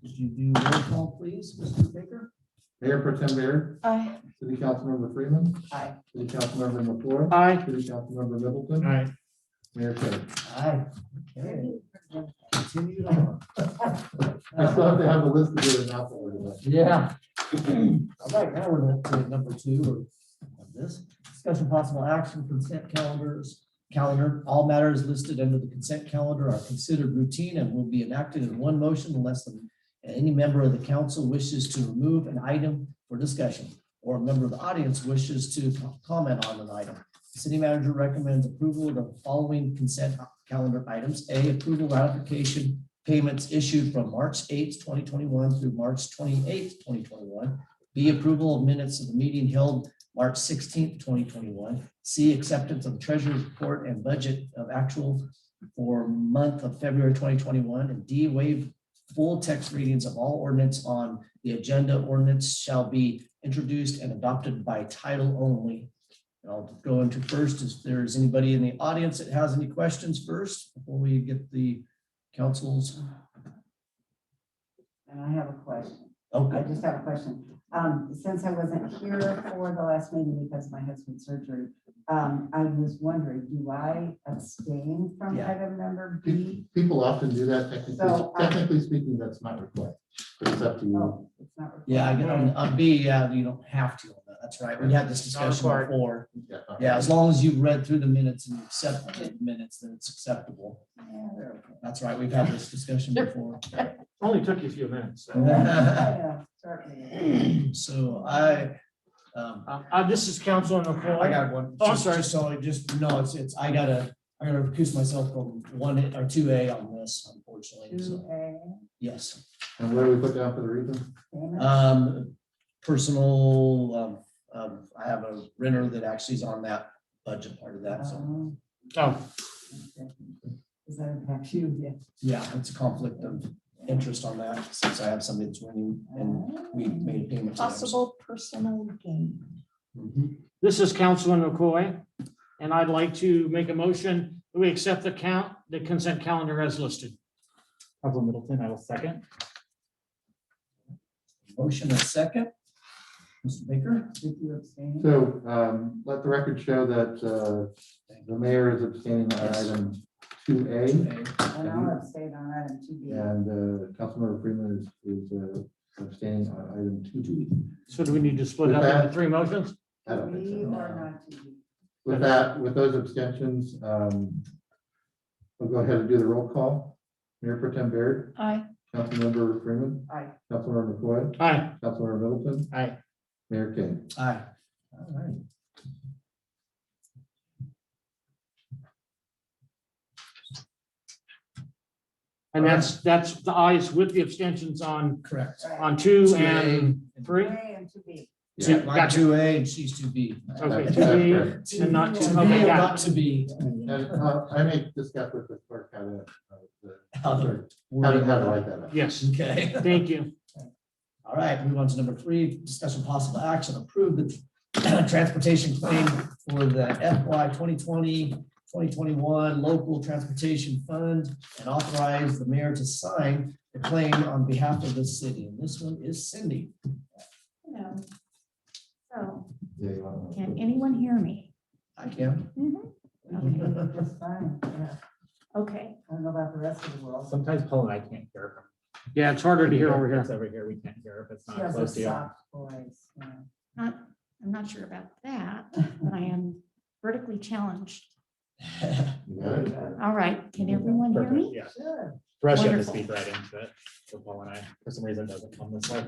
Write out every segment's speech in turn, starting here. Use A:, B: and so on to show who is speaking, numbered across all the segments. A: Could you do roll call, please, Mr. Baker?
B: Mayor Pro Tem Baird,
C: Aye.
B: City Councilmember Freeman,
A: Aye.
B: City Councilmember LaFleur,
D: Aye.
B: City Councilmember Middleton,
D: Aye.
B: Mayor Perry.
A: Aye. Okay. Continued on.
B: I still have to have a list to do it now. for everyone.
A: Yeah. All right, now we're at uh, number two of of this. Discussion possible action consent calendars, calendar. All matters listed under the consent calendar are considered routine and will be enacted in one motion unless the- any member of the council wishes to remove an item for discussion or a member of the audience wishes to co- comment on an item. The City manager recommends approval of the following consent calendar items. A, approval ratification payments issued from March eighth, twenty twenty-one through March twenty-eighth, twenty twenty-one. B, approval of minutes of the meeting held March sixteenth, twenty twenty-one. C, acceptance of treasurer's report and budget of actual for month of February twenty twenty-one. And D, waive full text readings of all ordinance on the agenda. Ordinance shall be introduced and adopted by title only. And I'll go into first, if there's anybody in the audience that has any questions first, before we get the council's
E: And I have a question. I
A: Okay,
E: just have a question. Um, since I wasn't here for the last meeting because of my husband's surgery, um, I was wondering, do I abstain from
A: Yeah.
E: item number
B: Pe-
E: B?
B: People often do that technically,
E: So, um, Oh. I-
B: technically speaking, that's not required, but it's up to you.
E: No, it's not. required.
A: yeah, I get on, on B, yeah, you don't have to, on that. that's right, we had this
D: Not
A: discussion
D: required.
A: before.
B: Yeah, all right.
A: Yeah, as long as you've read through the minutes and you accept the minutes, then it's acceptable.
E: Yeah, there
A: That's right, we've had this discussion before.
D: Only took you a few minutes.
E: we go. Yeah, certainly.
A: So I, um,
D: Uh, uh, this is Council Nicole.
A: I got one.
D: Oh, I'm
A: Just-
D: sorry.
A: just So I just, no, it's, it's, I gotta, I gotta recuse myself from one A- or two A on this, unfortunately, so,
D: Mm.
E: Two A,
A: yes.
B: And what do we put down for the reason?
E: payment.
A: Um, personal, um, um, I have a renter that actually is on that budget part of that, so.
E: Um,
D: Oh,
E: okay. Does that impact you? Yeah.
A: Yeah, it's a conflict of interest on that, since I have somebody that's winning and we made a payment. to them, so-
C: Possible personal gain.
A: Mhm.
D: this is Council Nicole, and I'd like to make a motion that we accept the count, the consent calendar as listed.
F: Council Middleton, I will second.
A: Motion a second. Mr. Baker,
E: Did you abstain?
B: So um, let the record show that uh, the mayor is abstaining on item two A.
A: okay,
E: And I'll abstain on item two B.
B: And uh, Councilmember Freeman is- is uh, abstaining on item two B.
D: So do we need to split up into three motions?
B: I don't think
E: B
B: so.
E: or not two B?
B: With that, with those abstentions, um, we'll go ahead and do the roll call. Mayor Pro Tem Baird,
C: Aye.
B: Councilmember Freeman,
E: Aye.
B: Councilmember McCoy,
D: Aye.
B: Councilmember Middleton,
D: Aye.
B: Mayor King.
A: Aye. All right.
D: And that's, that's the ayes with the abstentions on,
A: Correct.
E: Right.
D: on two
A: Two A
D: and three.
E: A and two B.
D: Yeah,
A: Two- I'm
D: gotcha.
A: two A and she's two B.
D: Okay,
B: That's-
D: to
B: that's
D: be
B: correct.
D: and not
A: To
D: to,
A: be
D: okay,
A: or
D: got
A: not to be.
B: And uh, I may discuss with the clerk how to, uh, the-
A: Other.
B: how to, how to write that
D: it.
B: up.
D: Yes,
A: Okay.
D: thank you.
A: All right, move on to number three, discussion possible action, approve the transportation claim for the FY 2020, 2021 local transportation fund and authorize the mayor to sign the claim on behalf of the city. And this one is Cindy.
G: Hello. So,
B: Yeah, you want
G: can anyone hear me?
A: I can.
G: Mhm.
E: That's fine, yeah.
G: Okay,
E: I don't know about the rest of the world.
F: Sometimes Paul and I can't hear. her.
D: Yeah, it's harder to hear over here.
F: It's over here, we can't hear if it's
E: She
F: not
E: has a
F: close to you.
E: soft voice. yeah.
G: not, I'm not sure about that, but I am vertically challenged.
B: You got it?
G: All right, can everyone hear
F: Perfect,
G: me?
F: yeah.
E: Sure.
F: The rest you have to
G: Wonderful.
F: speak right into it. So Paul and I, for some reason, doesn't come this way.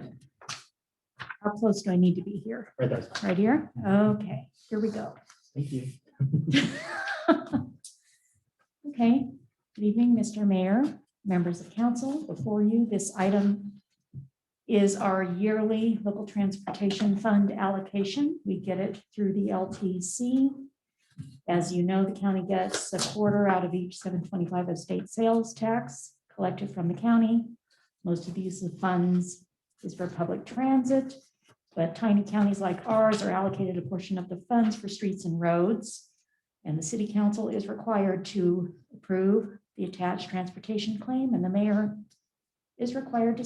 G: How close do I need to be here?
F: Right there's.
G: Right here? Okay, here we go.
F: Thank you.
G: Okay, good evening, Mr. Mayor, members of council. Before you, this item is our yearly local transportation fund allocation. We get it through the LTC. As you know, the county gets a quarter out of each seven twenty-five of state sales tax collected from the county. Most of these funds is for public transit, but tiny counties like ours are allocated a portion of the funds for streets and roads. And the city council is required to approve the attached transportation claim and the mayor is required to